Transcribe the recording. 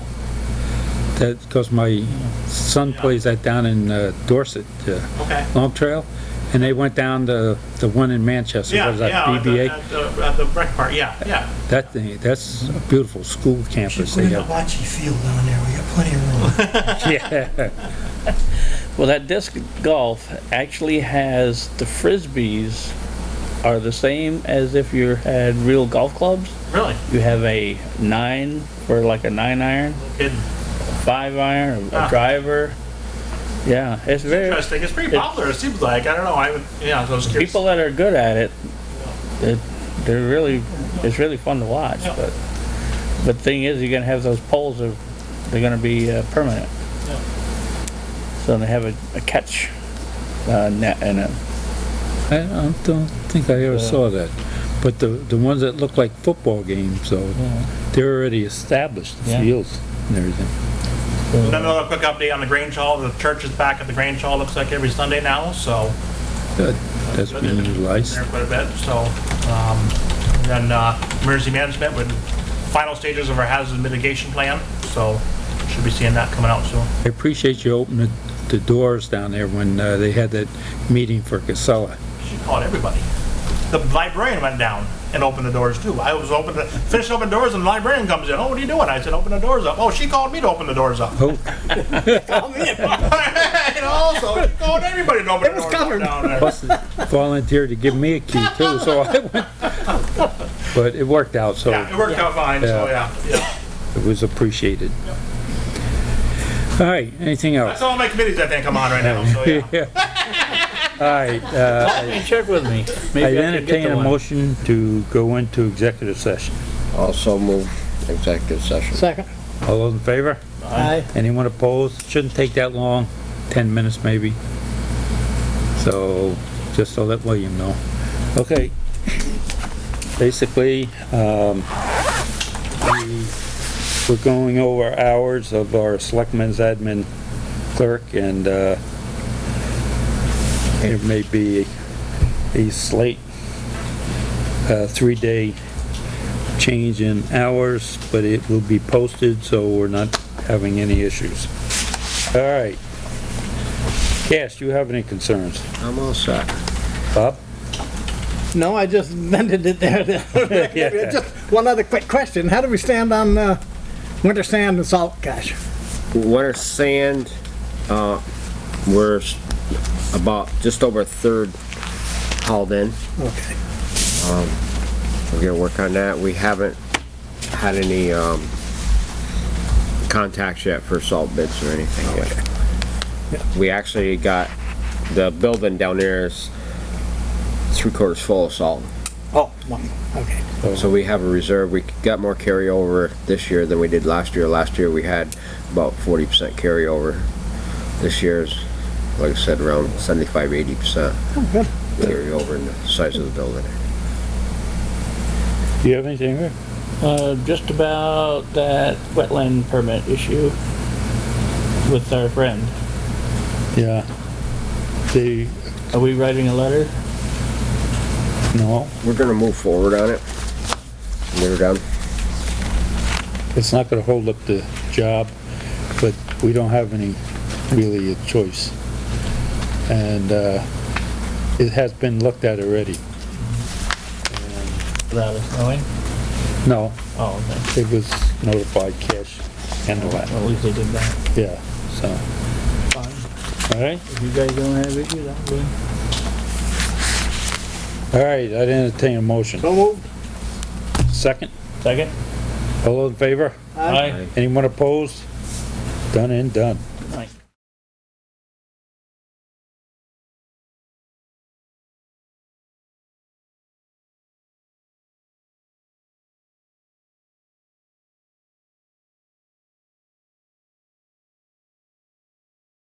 that, because my son plays that down in uh, Dorset, uh, Okay. Long Trail, and they went down the, the one in Manchester, Yeah, what is that, yeah, at the- BBA? At the, at the rec park, yeah, yeah. That thing, that's a beautiful school Should campus put they in a have. bocce field down there, we got plenty of room. Yeah, Well, that disc golf actually has the frisbees are the same as if you had real golf clubs. Really? You have a nine for like a nine iron, Good. five iron, a Ah. driver. Yeah, it's very Interesting. It's pretty popular, it seems like. I don't know. I would, yeah, I was curious. people that are good at it. it they're really it's really fun to watch. Yeah. But but thing is, you're gonna have those poles are they're gonna be uh, permanent. Yeah. So they have a, a catch uh, net and a I I don't think I ever saw that. But the, the ones that look like football games, so they're already established, the Yeah. fields and everything. Another quick update on the Grange Hall. The church is back at the Grange Hall, looks like every Sunday now, so. That- That's being utilized. There quite a bit, so, um, and then, uh, emergency management with final stages of our hazard mitigation plan, so should be seeing that coming out soon. I appreciate you opening the doors down there when uh, they had that meeting for Casella. She called everybody. The librarian went down and opened the doors too. I was open, finished open doors and the librarian comes in. Oh, what are you doing? I said, open the doors up. Oh, she called me to open the doors up. Oh, Called me. And also, she called everybody to open the doors up down there. plus volunteered to give me a key too, so I went. But it worked out, so Yeah, it worked out fine, so yeah, yeah. it was appreciated. All right, anything else? That's all my committees I think I'm on right now, so yeah. All right, uh, check with I me. Maybe I could get entertain the a one. motion to go into executive session. Also move executive session. Second. All those in favor? Aye. Anyone opposed? Shouldn't take that long, 10 minutes maybe. So, just to let William know. Okay. Basically, um, we- we're going over hours of our selectmen's admin clerk and, uh, there may be a slate, uh, three-day change in hours, but it will be posted, so we're not having any issues. All right. Cash, do you have any concerns? I'm all set. Bob? No, I just vented it there. Just one other quick question. How do we stand on, uh, winter sand and salt cash? Winter sand, uh, we're s- about, just over a third hauled in. Okay. We're gonna work on that. We haven't had any, um, contacts yet for salt bids or anything yet. We actually got, the building down there is three quarters full of salt. Oh, wonderful. Okay. So we have a reserve, we got more carryover this year than we did last year. Last year, we had about forty percent carryover. This year's, like I said, around 75, 80 percent good. carryover in the size of the building. Do you have anything here? Uh, just about that wetland permit issue with our friend. Yeah. The, Are we writing a letter? no, We're gonna move forward on it. We're done. it's not gonna hold up the job, but we don't have any, really, a choice. And, uh, it has been looked at already. Without us knowing? No, Oh, okay. it was notified cash and the Well, lot, at least they did that. yeah, so, Fine. Oh. all right? If you guys don't have it, you don't. then- All right, I'd entertain a motion. So moved. Second, Second? all those in favor? Aye. Anyone opposed? Done and done. Aye.